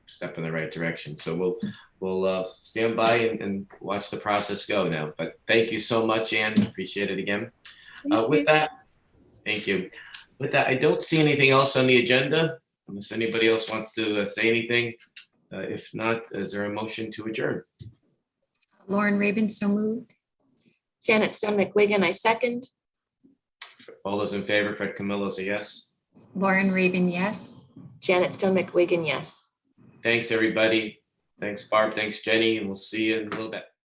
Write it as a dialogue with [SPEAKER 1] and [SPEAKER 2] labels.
[SPEAKER 1] step in the right direction. So we'll we'll uh, stand by and, and watch the process go now. But thank you so much, Ann. Appreciate it again. Uh, with that, thank you. With that, I don't see anything else on the agenda unless anybody else wants to uh, say anything. Uh, if not, is there a motion to adjourn?
[SPEAKER 2] Lauren Raven, so moved.
[SPEAKER 3] Janet Stone McWigan, I second.
[SPEAKER 1] All those in favor, Fred Camillo's a yes.
[SPEAKER 2] Lauren Raven, yes.
[SPEAKER 3] Janet Stone McWigan, yes.
[SPEAKER 1] Thanks, everybody. Thanks, Barb. Thanks, Jenny, and we'll see you in a little bit.